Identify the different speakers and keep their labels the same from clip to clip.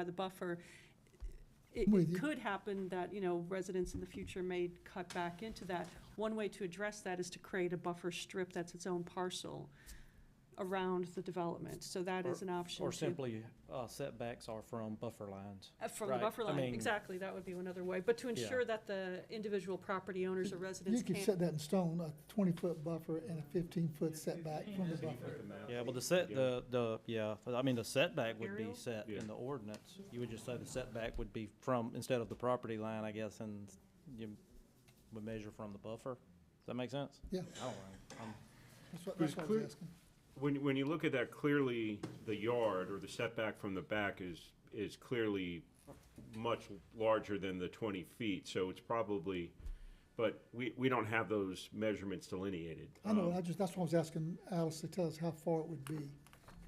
Speaker 1: by the buffer, it-
Speaker 2: I'm
Speaker 1: it
Speaker 2: with you.
Speaker 1: could happen that, you know, residents in the future may cut back into that. One way to address that is to create a buffer strip that's its own parcel around the development, so that is an option.
Speaker 3: Or
Speaker 1: too.
Speaker 3: simply uh, setbacks are from buffer lines.
Speaker 1: Uh, From the
Speaker 3: right,
Speaker 1: buffer
Speaker 3: I
Speaker 1: line,
Speaker 3: mean-
Speaker 1: exactly, that would be another way, but to
Speaker 3: Yeah.
Speaker 1: ensure that the individual property owners or residents
Speaker 2: You could
Speaker 1: can't.
Speaker 2: set that in stone, a twenty-foot buffer and a fifteen-foot setback from the buffer.
Speaker 3: Yeah, well, the set, the, the, yeah, but I mean, the setback would be
Speaker 1: Aerial?
Speaker 3: set
Speaker 4: Yeah.
Speaker 3: in the ordinance. You would just say the setback would be from, instead of the property line, I guess, and you would measure from the buffer. Does that make sense?
Speaker 2: Yeah,
Speaker 3: I don't know. I'm-
Speaker 2: that's what,
Speaker 4: There's
Speaker 2: that's what I
Speaker 4: clear-
Speaker 2: was asking.
Speaker 4: When, when you look at that, clearly, the yard or the setback from the back is, is clearly much larger than the twenty feet, so it's probably, but we, we don't have those measurements delineated.
Speaker 2: I know,
Speaker 4: Um,
Speaker 2: I just, that's what I was asking Alice to tell us how far it would be. 'Cause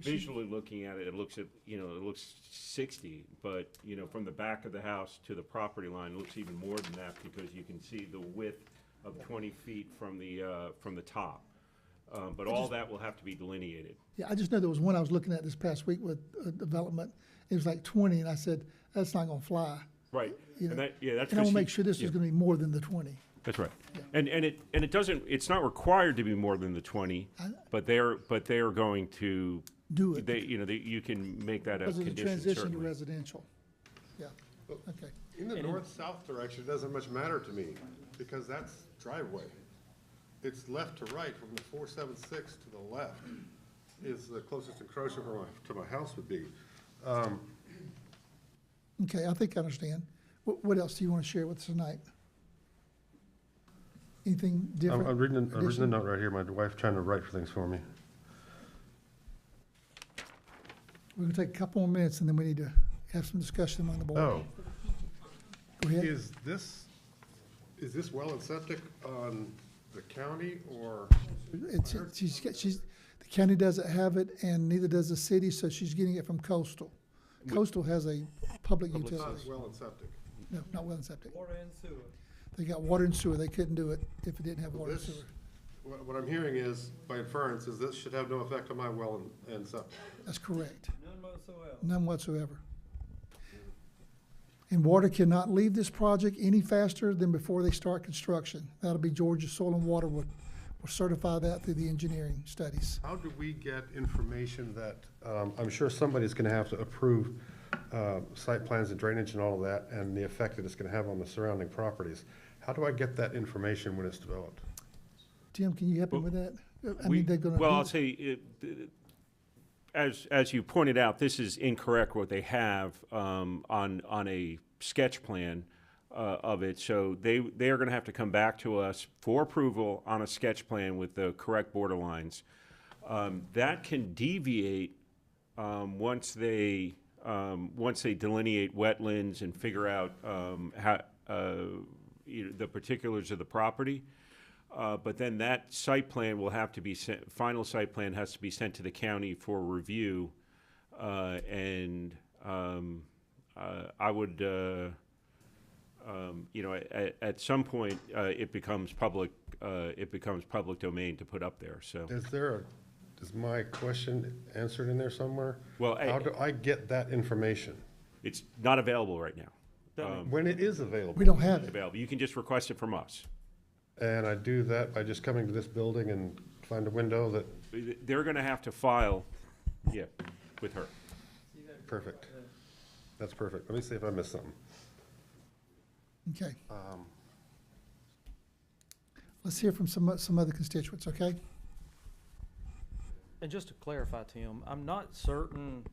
Speaker 2: she-
Speaker 4: Visually looking at it, it looks at, you know, it looks sixty, but, you know, from the back of the house to the property line, it looks even more than that, because you can see the width of twenty feet from the, uh, from the top. Uh, but all that will have to be delineated.
Speaker 2: Yeah, I just know there was one I was looking at this past week with a development, it was like twenty, and I said, that's not gonna fly.
Speaker 4: Right,
Speaker 2: You
Speaker 4: and
Speaker 2: know,
Speaker 4: that, yeah, that's.
Speaker 2: And I wanna
Speaker 4: 'cause
Speaker 2: make
Speaker 4: you-
Speaker 2: sure this
Speaker 4: yeah.
Speaker 2: is gonna be more than the twenty.
Speaker 4: That's right. And, and it, and it doesn't, it's not required to be more than the twenty, but they're, but they are going to.
Speaker 2: Do it.
Speaker 4: They, you know, they, you can make that a
Speaker 2: Because of the
Speaker 4: condition
Speaker 2: transition to
Speaker 4: certainly.
Speaker 2: residential. Yeah, okay.
Speaker 5: In the north-south direction, it doesn't much matter to me, because that's driveway. It's left to right from the four seven six to the left is the closest encroachment to my, to my house would be.
Speaker 2: Okay, I think I understand. What, what else do you want to share with us tonight? Anything different?
Speaker 5: I'm, I'm reading, I'm reading a
Speaker 2: addition?
Speaker 5: note right here. My wife's trying to write things for me.
Speaker 2: We're gonna take a couple more minutes and then we need to have some discussion among the board.
Speaker 5: Oh,
Speaker 2: Go ahead.
Speaker 5: is this, is this well and septic on the county or?
Speaker 2: It's, it's- she's, got- she's, the county doesn't have it and neither does the city, so she's getting it from coastal. Coastal has a public
Speaker 5: Not
Speaker 2: utility.
Speaker 5: well and septic.
Speaker 2: No, not well and septic.
Speaker 6: Water and sewer.
Speaker 2: They got water and sewer. They couldn't do it if it didn't have water and
Speaker 5: This,
Speaker 2: sewer.
Speaker 5: what, what I'm hearing is, by inference, is this should have no effect on my well and, and septic.
Speaker 2: That's correct.
Speaker 6: None whatsoever.
Speaker 2: None whatsoever. And water cannot leave this project any faster than before they start construction. That'll be Georgia Soil and Water will, will certify that through the engineering studies.
Speaker 5: How do we get information that, um, I'm sure somebody's gonna have to approve, uh, site plans and drainage and all of that, and the effect that it's gonna have on the surrounding properties. How do I get that information when it's developed?
Speaker 2: Tim, can you help me with that? Uh, I mean,
Speaker 4: We-
Speaker 2: they're gonna.
Speaker 4: Well,
Speaker 2: do-
Speaker 4: I'll say, it- th- as, as you pointed out, this is incorrect what they have, um, on, on a sketch plan, uh, of it. So they, they are gonna have to come back to us for approval on a sketch plan with the correct border lines. Um, that can deviate, um, once they, um, once they delineate wetlands and figure out, um, how, uh, you know, the particulars of the property. Uh, but then that site plan will have to be sent, final site plan has to be sent to the county for review. Uh, and, um, uh, I would, uh, um, you know, at, at some point, uh, it becomes public, uh, it becomes public domain to put up there, so.
Speaker 5: Is there a, is my question answered in there somewhere?
Speaker 4: Well, I-
Speaker 5: How do I get that information?
Speaker 4: It's not available right now. Um,
Speaker 5: When it is
Speaker 2: We
Speaker 5: available?
Speaker 2: don't have it.
Speaker 4: Available. You can just request it from us.
Speaker 5: And I do that by just coming to this building and find a window that,
Speaker 4: They're gonna have to file, yeah, with her.
Speaker 5: perfect. That's perfect. Let me see if I missed something.
Speaker 2: Okay. Let's hear from some, o- some other constituents, okay?
Speaker 3: And just to clarify, Tim, I'm not certain,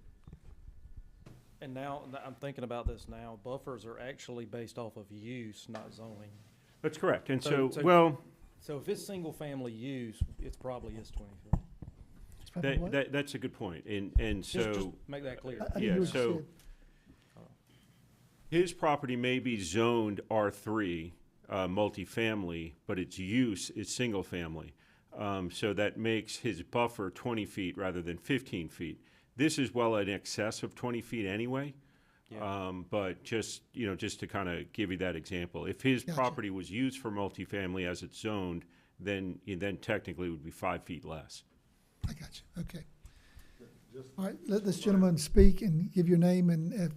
Speaker 3: and now, that I'm thinking about this now, buffers are actually based off of use, not zoning.
Speaker 4: That's correct. And
Speaker 3: So-
Speaker 4: so,
Speaker 3: so-
Speaker 4: well.
Speaker 3: So if it's single-family use, it's probably is twenty feet.
Speaker 2: It's probably
Speaker 4: That,
Speaker 2: what-
Speaker 4: that, that's a good point, and, and
Speaker 3: Just- just
Speaker 4: so
Speaker 3: Make that clear.
Speaker 2: I- I didn't
Speaker 4: yeah,
Speaker 2: hear what you
Speaker 4: so-
Speaker 2: said.
Speaker 4: his property may be zoned R three, uh, multifamily, but its use is single family. Um, so that makes his buffer twenty feet rather than fifteen feet. This is well in excess of twenty feet anyway. Um, but just, you know, just to kind of give you that example, if his
Speaker 2: Gotcha.
Speaker 4: property was used for multifamily as it's zoned, then, then technically it would be five feet less.
Speaker 2: I got you, okay. All right, let this gentleman speak and give your name and uh,